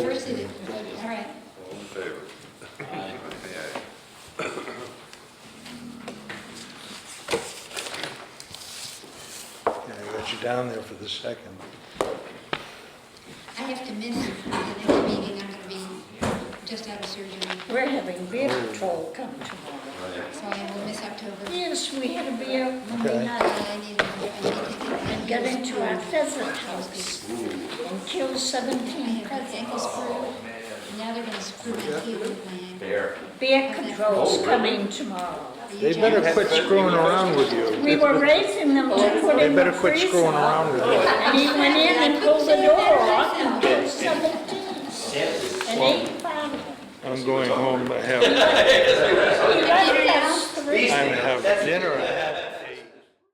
did it, all right. All in favor? Aye. Aye, Yeah, I got you down there for the second. I have to miss the next meeting, I'm gonna be just out of surgery, We're having beer patrol come tomorrow. aye. Right. so I will miss October. Yes, we had a beer Okay. Monday Uh, night I need, I need to get. and got into our pheasant house and killed I 17 have my ankle pheasants. screwed, now they're gonna screw my heel with my ankle. Bear. Beer Oh, control's coming tomorrow. Are you They better jealous? quit screwing around with you. We were raising them to put They in the better quit freezer. screwing around with you. And he went in and pulled the door off and killed 17. And eight pound. I'm going home to have, He right past three. I'm have dinner.